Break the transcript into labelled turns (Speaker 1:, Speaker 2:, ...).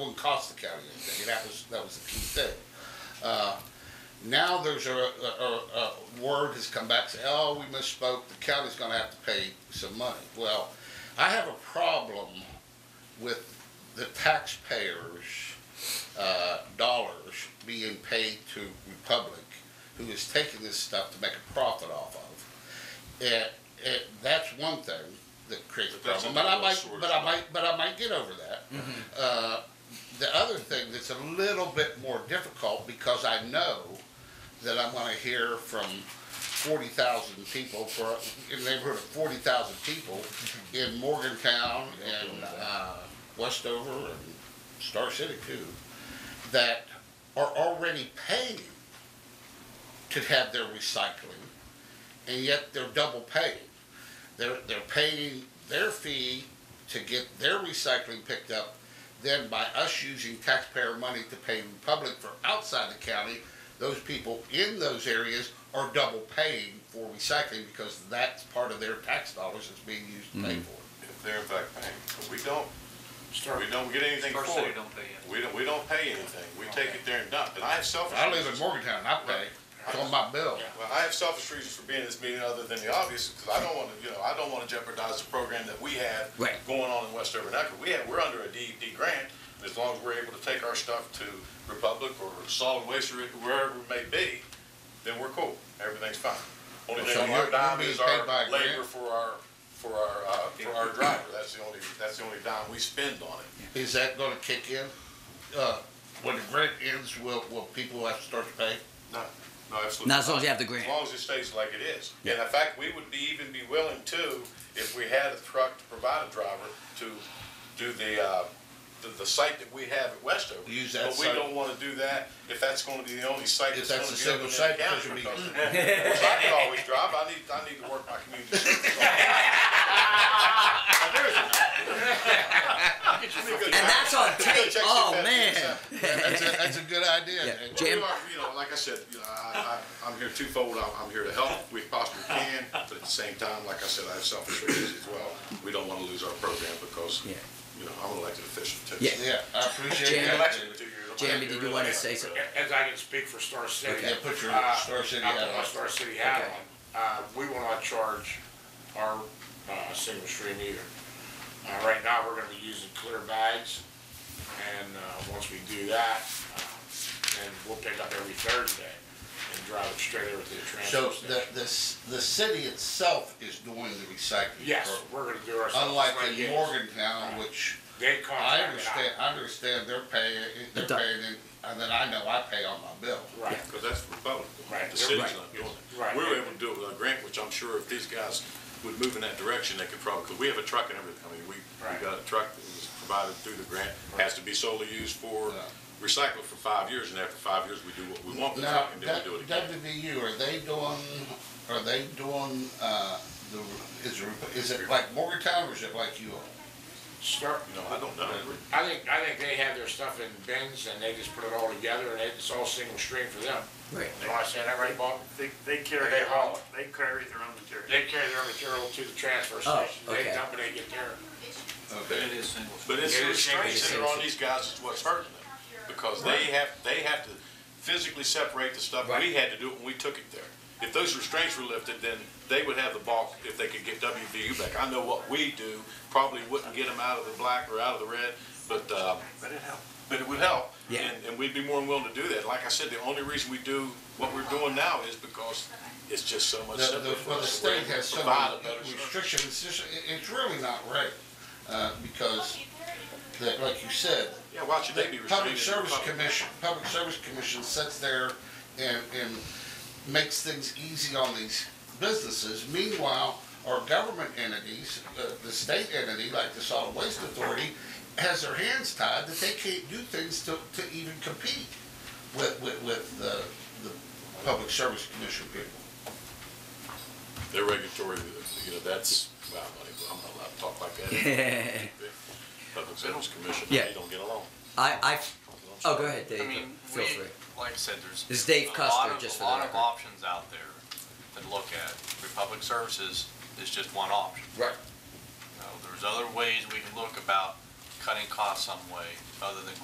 Speaker 1: wouldn't cost the county anything. That was, that was the key thing. Uh, Now there's a, a, a- a word has come back, say, oh, we misspoke, the county's gonna have to pay some money. Well, I have a problem with the taxpayers' uh, dollars being paid to Republic, who is taking this stuff to make a profit off of. And, and that's one thing that creates a
Speaker 2: But that's
Speaker 1: problem,
Speaker 2: a
Speaker 1: but I
Speaker 2: double-edged
Speaker 1: might,
Speaker 2: sword,
Speaker 1: but
Speaker 2: isn't
Speaker 1: I
Speaker 2: it?
Speaker 1: might, but I might get over that. Uh, the other thing that's a little bit more difficult because I know that I'm going to hear from 40,000 people for in the neighborhood of 40,000 people in Morgantown and uh, Westover and Star City too that are already paying to have their recycling and yet they're double paying. They're, they're paying their fee to get their recycling picked up, then by us using taxpayer money to pay Republic for outside the county, those people in those areas are double paying for recycling because that's part of their tax dollars that's being used to pay for it.
Speaker 2: if they're in fact paying, but we don't, we don't get anything
Speaker 3: First
Speaker 2: for
Speaker 3: city
Speaker 2: it.
Speaker 3: don't pay it.
Speaker 2: We don't, we don't pay anything, we take it there and dump, and I have selfish.
Speaker 1: I live in
Speaker 2: reasons.
Speaker 1: Morgantown, I pay, it's on my bill.
Speaker 2: Well, I have selfish reasons for being in this meeting other than the obvious, because I don't want to, you know, I don't want to jeopardize the program that we have
Speaker 4: Right.
Speaker 2: going on in West Urban Echo. We have, we're under a DEP grant, and as long as we're able to take our stuff to Republic or Solid Waste or wherever it may be, then we're cool. Everything's fine. Only
Speaker 1: So
Speaker 2: thing
Speaker 1: you're-
Speaker 2: we're dime
Speaker 1: you're
Speaker 2: is
Speaker 1: being paid
Speaker 2: our
Speaker 1: by a grant?
Speaker 2: labor for our, for our, uh, for our driver. That's the only, that's the only dime we spend on it.
Speaker 1: Is that gonna kick in? Uh, When the grant ends, will, will people have to start to pay?
Speaker 2: No, no, absolutely.
Speaker 4: Not as
Speaker 2: not.
Speaker 4: long as you have the grant.
Speaker 2: As long as it stays like it is. And in fact, we would be, even be willing to, if we had a truck to provide a driver to do the, uh, the, the site that we have at Westover.
Speaker 1: Use that
Speaker 2: But we
Speaker 1: site.
Speaker 2: don't wanna do that if that's gonna be the only site
Speaker 1: If
Speaker 2: that's
Speaker 1: that's
Speaker 2: gonna
Speaker 1: a
Speaker 2: be
Speaker 1: single site,
Speaker 2: open in the county.
Speaker 1: because it'd be-
Speaker 2: because- Because I could always drive, I need, I need to work my community service. And
Speaker 4: And that's on tape. Oh, man.
Speaker 1: That's a, that's a good idea.
Speaker 4: Yeah.
Speaker 1: And-
Speaker 2: Well,
Speaker 4: Jim?
Speaker 2: we are, you know, like I said, you know, I, I, I'm here twofold. I'm, I'm here to help if we possibly can, but at the same time, like I said, I have selfish reasons as well. We don't want to lose our program because,
Speaker 4: Yeah.
Speaker 2: you know, I'm an elected official too.
Speaker 4: Yeah.
Speaker 1: Yeah, I appreciate
Speaker 4: Jan-
Speaker 1: that.
Speaker 4: Jamie, did you want to say something?
Speaker 5: As I can speak for Star City.
Speaker 1: Yeah, put your
Speaker 5: uh,
Speaker 1: Star City
Speaker 5: I'll
Speaker 1: hat
Speaker 5: put my
Speaker 1: on.
Speaker 5: Star City hat
Speaker 4: Okay.
Speaker 5: on. Uh, we will not charge our, uh, single stream either. Uh, right now, we're gonna be using clear bags, and, uh, once we do that, uh, then we'll pick up every Thursday and drive it straight over to the
Speaker 1: So
Speaker 5: transfer
Speaker 1: the,
Speaker 5: station.
Speaker 1: the, s- the city itself is doing the recycling.
Speaker 5: Yes,
Speaker 1: program,
Speaker 5: we're gonna do ourselves.
Speaker 1: Unlike
Speaker 5: Yes.
Speaker 1: in Morgantown, which
Speaker 5: They
Speaker 1: I
Speaker 5: contract it out.
Speaker 1: understand, I understand they're paying, they're
Speaker 4: Adopt.
Speaker 1: paying, it, and then I know I pay on my bill.
Speaker 5: Right.
Speaker 2: Because that's Republican.
Speaker 5: Right.
Speaker 2: The city's
Speaker 5: Right.
Speaker 2: not doing it.
Speaker 5: Right.
Speaker 2: We were able to do it with our grant, which I'm sure if these guys would move in that direction, they could probably, because we have a truck and everything. I mean, we, we
Speaker 5: Right.
Speaker 2: got a truck that was provided through the grant, has to be solely used for
Speaker 1: Yeah.
Speaker 2: recycling for five years, and after five years, we do what we want with the
Speaker 1: Now,
Speaker 2: truck, and then
Speaker 1: that-
Speaker 2: we Oh, do it again.
Speaker 1: WVU, are they doing, are they doing, uh, the, is, it- is it like Morgantown or is it like you all?
Speaker 5: Start,
Speaker 2: You know, I don't know.
Speaker 5: I think, I think they have their stuff in bins and they just put it all together and it's all single stream for them.
Speaker 4: Right.
Speaker 5: You know what I said, that right, Bob?
Speaker 6: They, they carry,
Speaker 5: They
Speaker 6: their
Speaker 5: haul
Speaker 6: own- they carry their own material.
Speaker 5: They carry their material to the transfer
Speaker 4: Oh,
Speaker 5: station, they
Speaker 4: okay.
Speaker 5: dump it, they get there.
Speaker 1: Okay.
Speaker 3: It is single.
Speaker 2: But it's
Speaker 5: Yeah,
Speaker 2: the
Speaker 5: it's shaky.
Speaker 2: restraints that are on these guys is what's hurting them, because they have, they have to physically separate the stuff, we had to do it when we took it there. If those restraints were lifted, then they would have the bulk if they could get WVU back. I know what we do probably wouldn't get them out of the black or out of the red, but, uh,
Speaker 6: But it helps.
Speaker 2: but it would help.
Speaker 4: Yeah.
Speaker 2: And, and we'd be more than willing to do that. Like I said, the only reason we do what we're doing now is because it's just so much
Speaker 1: The,
Speaker 2: simpler
Speaker 1: the,
Speaker 2: for
Speaker 1: well, the
Speaker 2: us. We're
Speaker 1: state
Speaker 2: able to
Speaker 1: has so
Speaker 2: provide a
Speaker 1: many
Speaker 2: better service.
Speaker 1: restrictions, it's just, it- it's really not right, uh, because, that, like you said,
Speaker 2: Yeah, why should they be
Speaker 1: the
Speaker 2: restrained?
Speaker 1: Public
Speaker 2: in
Speaker 1: Service
Speaker 2: Republic?
Speaker 1: Commission, Public Service Commission sits there and, and makes things easy on these businesses. Meanwhile, our government entities, uh, the state entity, like the Solid Waste Authority, has their hands tied that they can't do things to, to even compete with, with, with the, the Public Service Commission people.
Speaker 2: They're regulatory, you know, that's, well, I'm not even- I'm not allowed to talk like that.
Speaker 4: I,
Speaker 2: Public Service Commission,
Speaker 4: Yeah.
Speaker 2: they don't get along.
Speaker 4: I, oh, go ahead, Dave.
Speaker 3: I mean,
Speaker 4: Feel
Speaker 3: we,
Speaker 4: free.
Speaker 3: like I said, there's.
Speaker 4: This is Dave
Speaker 3: a
Speaker 4: Custer,
Speaker 3: lot of-
Speaker 4: just for
Speaker 3: A
Speaker 4: the
Speaker 3: lot of
Speaker 4: record.
Speaker 3: options out there to look at. Republic Services is just one option.
Speaker 4: Right.
Speaker 3: You know, there's other ways we can look about cutting costs some way, other than